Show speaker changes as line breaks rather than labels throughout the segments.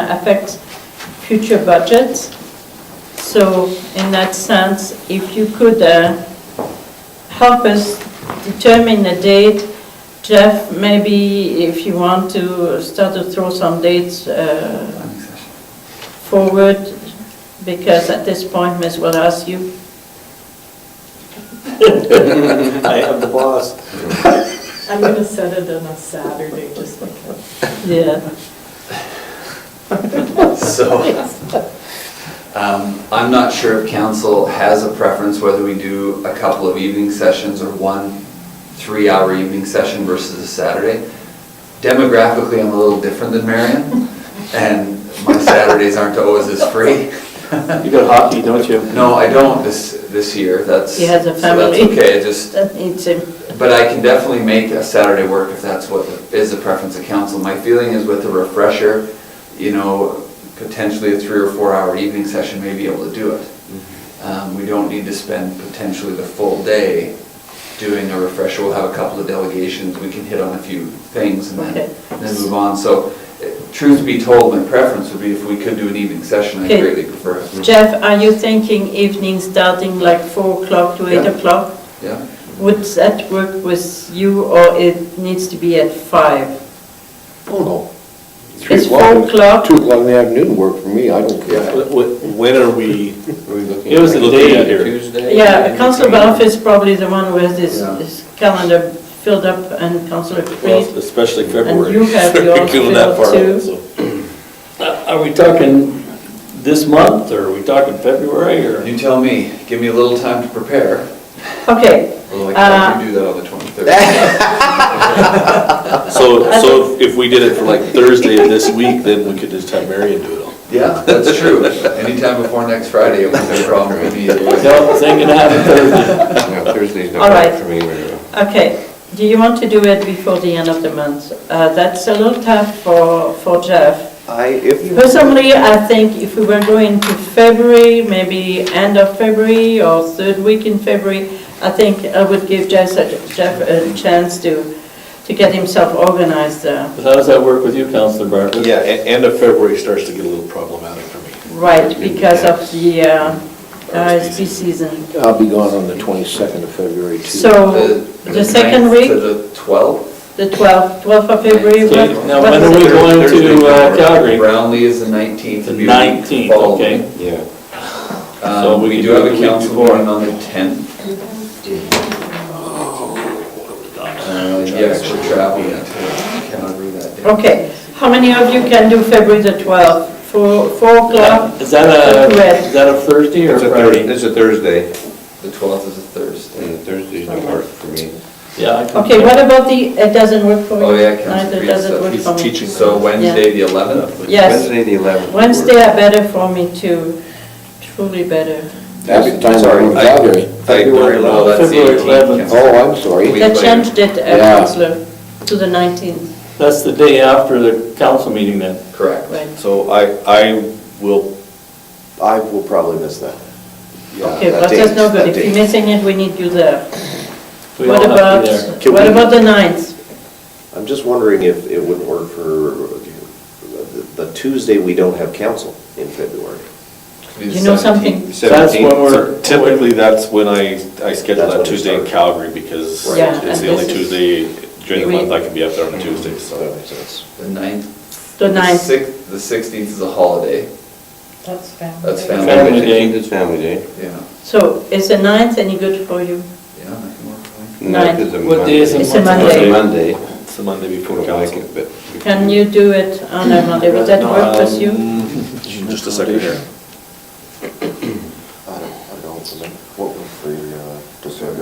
uh, affects future budgets. So in that sense, if you could uh, help us determine a date, Jeff, maybe if you want to start to throw some dates uh, forward, because at this point, Ms. will ask you.
I am the boss.
I'm gonna set it on a Saturday, just because.
Yeah.
So, um, I'm not sure if council has a preference whether we do a couple of evening sessions or one three-hour evening session versus a Saturday. Demographically, I'm a little different than Marion, and my Saturdays aren't always as free.
You got hockey, don't you?
No, I don't this, this year, that's.
He has a
So
family.
that's okay, I just,
That needs him.
But I can definitely make a Saturday work if that's what is the preference of council. My feeling is with a refresher, you know, potentially a three or four hour evening session may be able to do it.
Mm-hmm.
Um, We don't need to spend potentially the full day doing a refresher. We'll have a couple of delegations, we can hit on a few things and
Okay.
then, and then move on. So eh, truth be told, my preference would be if we could do an evening session, I
Okay.
greatly prefer it.
Jeff, are you thinking evening starting like 4 o'clock to 8
Yeah.
o'clock?
Yeah?
Would that work with you or it needs to be at 5?
Oh, no.
It's four o'clock.
Two o'clock in the afternoon work for me, I don't care.
When are we?
It was the day here.
Yeah, Councillor Balfe is probably the one who has his
Yeah.
his calendar filled up and Councillor
Well,
Creed.
especially February.
And you have yours
Going that far
filled too.
out, so.
Uh, Are we talking this month, or are we talking February, or?
You tell me, give me a little time to prepare,
Okay,
although I
Uh,
can do that on the 23rd.
So, so if we did it for like Thursday of this week, then we could just have Marion do it all.
Yeah, that's true. Anytime before next Friday, it was no problem with me.
No, thinking out of Thursday.
Yeah, Thursday's
All
not
right.
work for me right now.
okay. Do you want to do it before the end of the month? Uh, That's a little tough for for Jeff.
I, if.
Personally, I think if we were going to February, maybe end of February or third week in February, I think I would give Jeff a Jeff a chance to to get himself organized uh,
But How does that work with you, Counselor Bartlett?
Yeah, a- end of February starts to get a little problematic for me.
right because of the uh, RSP season.
I'll be gone on the twenty-second of February too.
So the second
ninth
week,
To the 12th?
the 12th, 12th of February.
Okay,
what-
now
what
when
is
are we
it?
going to uh, Calgary?
Brownlee is the 19th.
The
it'd be a week
19th,
following.
okay.
Yeah.
Um,
So we
We
could
do
do it
have
the
a
week
council
before.
meeting on the 10th.
Oh,
Uh, Yeah, actually traveling to Calgary that day.
Okay, how many of you can do February the 12th? Four four o'clock?
Is that a,
Correct.
is that a Thursday or
It's a Thursday,
Friday?
it's a Thursday,
The 12th is a Thursday.
and Thursday's not work for me.
Yeah. I can-
Okay, what about the, it doesn't work for me?
Oh, yeah, Council
Neither
Creed
does it
said
work
he's
for me.
teaching.
So Wednesday, the 11th?
Yes,
Wednesday, the eleventh.
Wednesday are better for me too, truly better.
That's the time we're in
I-
Calgary.
February
No, that's the February 18th, 11th. Council.
Oh, I'm sorry.
We-
They
later.
changed it, uh,
Yeah.
councillor, to the 19th,
That's the day after the council meeting then.
Correct.
right?
So I, I will,
I will probably miss that. Yeah,
Okay,
that
but that's
date,
no
that
good, if
date.
you're missing it, we need you there.
We
What
all have
about,
to be there.
Can
what
we-
about the 9th?
I'm just wondering if it would work for, the Tuesday, we don't have council in February.
It'd be the
You know
17th.
something?
That's when
17th.
we're.
typically, that's when I, I
That's
schedule that
when it
Tuesday in
starts.
Calgary because
Right. Yeah, and
it's the only
this is-
Tuesday during the
We-
month I can be up there on a Tuesday, so.
The 9th.
The 9th.
sixth- The 16th is a holiday.
That's family.
That's family.
Family day.
It's family day.
Yeah,
So is the 9th any good for you?
yeah, that can work fine.
Nine.
It's a
What day is it?
It's a Monday.
Monday.
It's the Monday
People
before
don't like
council.
it, but.
Can you do it on a Monday, would that work with you?
Um, Just a second here.
I don't, I don't remember. What was
uh,
the December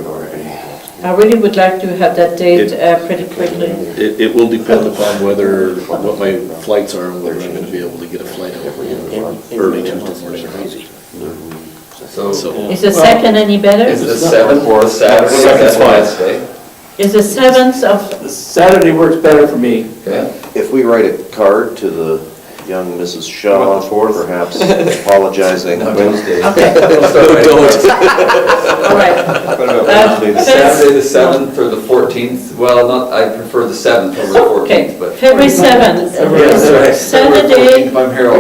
I really would like to have that date
It-
uh, pretty quickly.
It, it will depend upon whether, what my flights are and whether I'm gonna be able to get a flight out early Tuesday morning.
So
So,
Is the 2nd any
is the
better?
seventh or Saturday?
Seventh's fine.
Wednesday?
Is the 7th of,
Saturday works better for me.
Okay,
If we write a card to the young Mrs. Shaw, perhaps apologizing.
Wednesday.
okay, all right.
What about
Uh,
Wednesday, the
Saturday, the seventh or the fourteenth, well, not, I prefer the seventh over the
Okay,
fourteenth, but.
February 7th,
Yeah, that's right.
Saturday,
If I'm here, I'll